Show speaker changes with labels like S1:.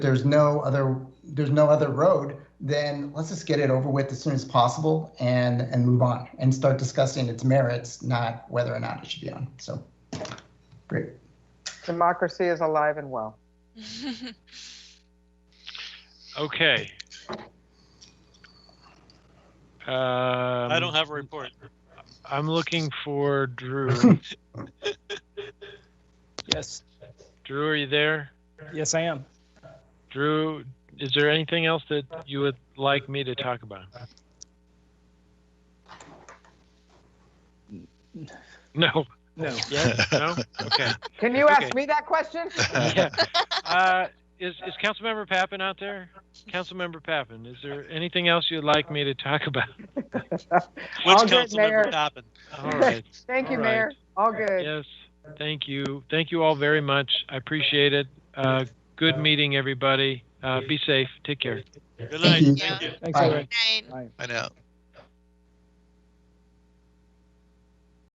S1: there's no other there's no other road, then let's just get it over with as soon as possible and and move on and start discussing its merits, not whether or not it should be on. So great.
S2: Democracy is alive and well.
S3: Okay. Um,
S4: I don't have a report.
S3: I'm looking for Drew.
S5: Yes,
S3: Drew, are you there?
S5: yes, I am.
S3: Drew, is there anything else that you would like me to talk about? No.
S5: No.
S3: Yes. No. Okay.
S2: Can you ask
S3: Okay.
S2: me that question?
S3: Yeah. Uh, is is Councilmember Pappin out there? Councilmember Pappin, is there anything else you'd like me to talk about?
S4: Which
S2: All good,
S4: council
S2: Mayor.
S4: member happened?
S3: All right.
S2: Thank you,
S3: All right.
S2: Mayor. All good.
S3: Yes, thank you. Thank you all very much. I appreciate it. Uh, good meeting, everybody. Uh, be safe. Take care.
S4: Good
S1: Thank
S4: night.
S1: you.
S4: Thank you.
S5: Thanks,
S1: Bye.
S5: everybody.
S6: Nine.
S5: Bye.
S7: I know.